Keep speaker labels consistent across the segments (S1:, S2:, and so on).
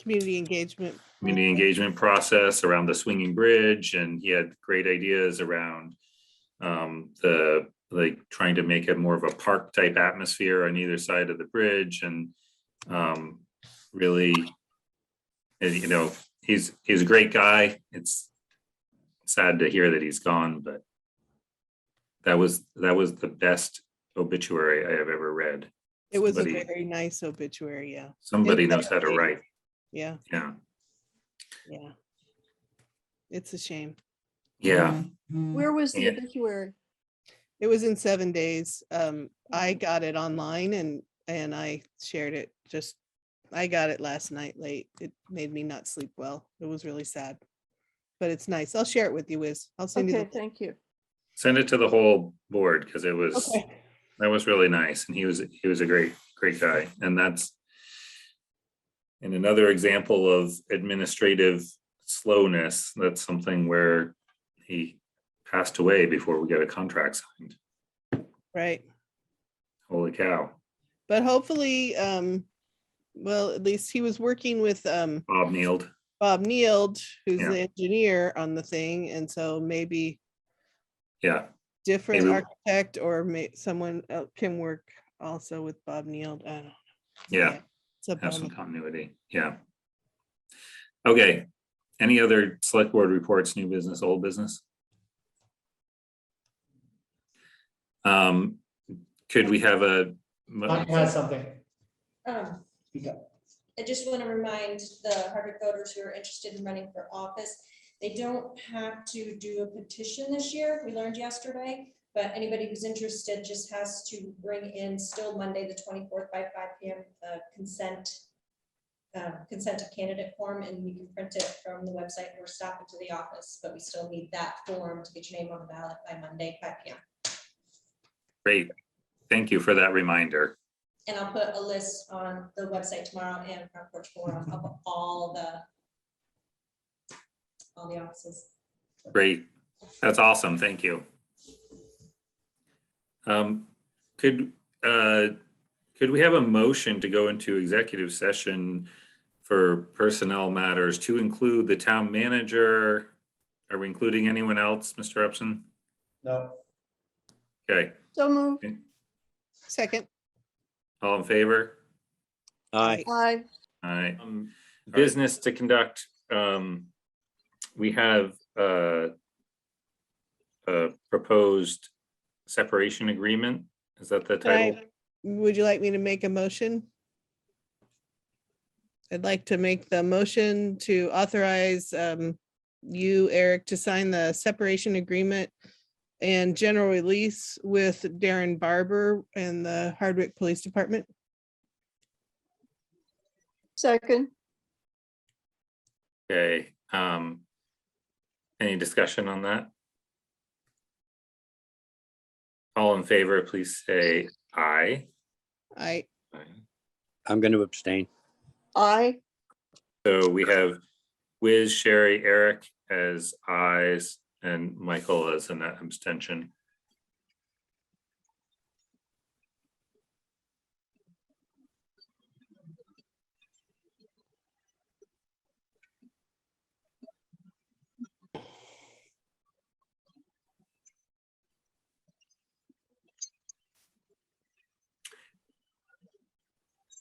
S1: community engagement.
S2: community engagement process around the swinging bridge and he had great ideas around um, the, like, trying to make it more of a park type atmosphere on either side of the bridge and um, really, and, you know, he's, he's a great guy. It's sad to hear that he's gone, but that was, that was the best obituary I have ever read.
S1: It was a
S2: Somebody-
S1: very nice obituary, yeah,
S2: Somebody knows how to write.
S1: yeah,
S2: Yeah,
S1: yeah. It's a shame.
S2: yeah.
S3: Where was the
S2: Yeah.
S3: obituary?
S1: It was in seven days. Um, I got it online and, and I shared it just, I got it last night late. It made me not sleep well. It was really sad. But it's nice. I'll share it with you, Wiz. I'll send you
S3: Okay,
S1: the.
S3: thank you.
S2: Send it to the whole board because it was,
S1: Okay.
S2: that was really nice and he was he was a great great guy and that's and another example of administrative slowness that's something where he passed away before we got a contract signed
S1: Right.
S2: holy cow
S1: But hopefully, um, well, at least he was working with, um,
S2: bob kneeled
S1: Bob Neild, who's
S2: Yeah.
S1: the engineer on the thing. And so maybe
S2: yeah
S1: different
S2: Maybe-
S1: architect or may, someone el- can work also with Bob Neild. I don't know.
S2: yeah
S1: It's a
S2: have some
S1: bummer.
S2: continuity yeah okay any other select board reports new business old business um could we have a mo-
S4: Monica has something.
S5: Um,
S4: Speak up.
S5: I just want to remind the Harvard voters who are interested in running for office, they don't have to do a petition this year, we learned yesterday. But anybody who's interested just has to bring in still Monday, the twenty-fourth by five P M, uh, consent. Uh, consent to candidate form and we can print it from the website or stop it to the office, but we still need that form to get your name on the ballot by Monday, five P M.
S2: Great. Thank you for that reminder.
S5: And I'll put a list on the website tomorrow and front porch forum of all the all the offices.
S2: Great. That's awesome. Thank you. Um, could, uh, could we have a motion to go into executive session for personnel matters to include the town manager? Are we including anyone else, Mr. Upson?
S4: No,
S2: Okay,
S3: So moved.
S1: Second,
S2: all in favor?
S1: Aye.
S3: Aye.
S2: All right.
S6: Um,
S2: business to conduct, um, we have, uh, a proposed separation agreement. Is that the title?
S1: Right. would you like me to make a motion? I'd like to make the motion to authorize, um, you, Eric, to sign the separation agreement and general release with Darren Barber and the Hardwick Police Department.
S3: Second.
S2: Okay, um, any discussion on that? All in favor, please say aye.
S1: I,
S6: I'm going to abstain.
S3: Aye.
S2: So we have Wiz, Sherry, Eric as ayes, and Michael as an abstention.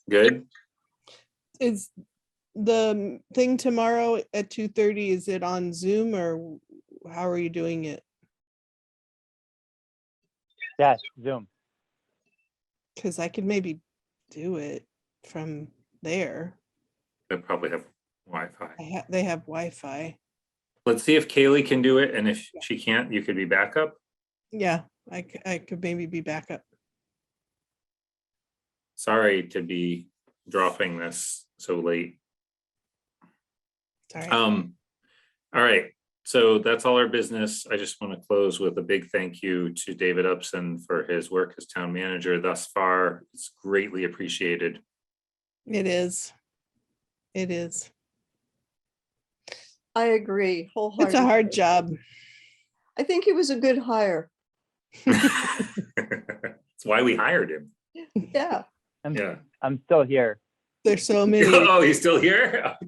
S2: Good?
S1: is the m- thing tomorrow at two thirty, is it on Zoom or w- how are you doing it?
S7: Yes, Zoom.
S1: Cause I could maybe do it from there.
S2: They probably have Wi-Fi.
S1: I ha- they have Wi-Fi.
S2: Let's see if Kaylee can do it, and if she can't, you could be backup.
S1: Yeah, I, c- I could maybe be back up.
S2: Sorry to be dropping this so late.
S1: Sorry.
S2: Um, all right, so that's all our business. I just want to close with a big thank you to David Upson for his work as town manager thus far. It's greatly appreciated.
S1: It is. It is.
S3: I agree
S1: It's
S3: wholeheartedly.
S1: a hard job.
S3: I think it was a good hire.
S2: It's why we hired him.
S3: Yeah.
S7: I'm,
S2: Yeah.
S7: I'm still here.
S1: There's so many.
S2: Oh, he's still here?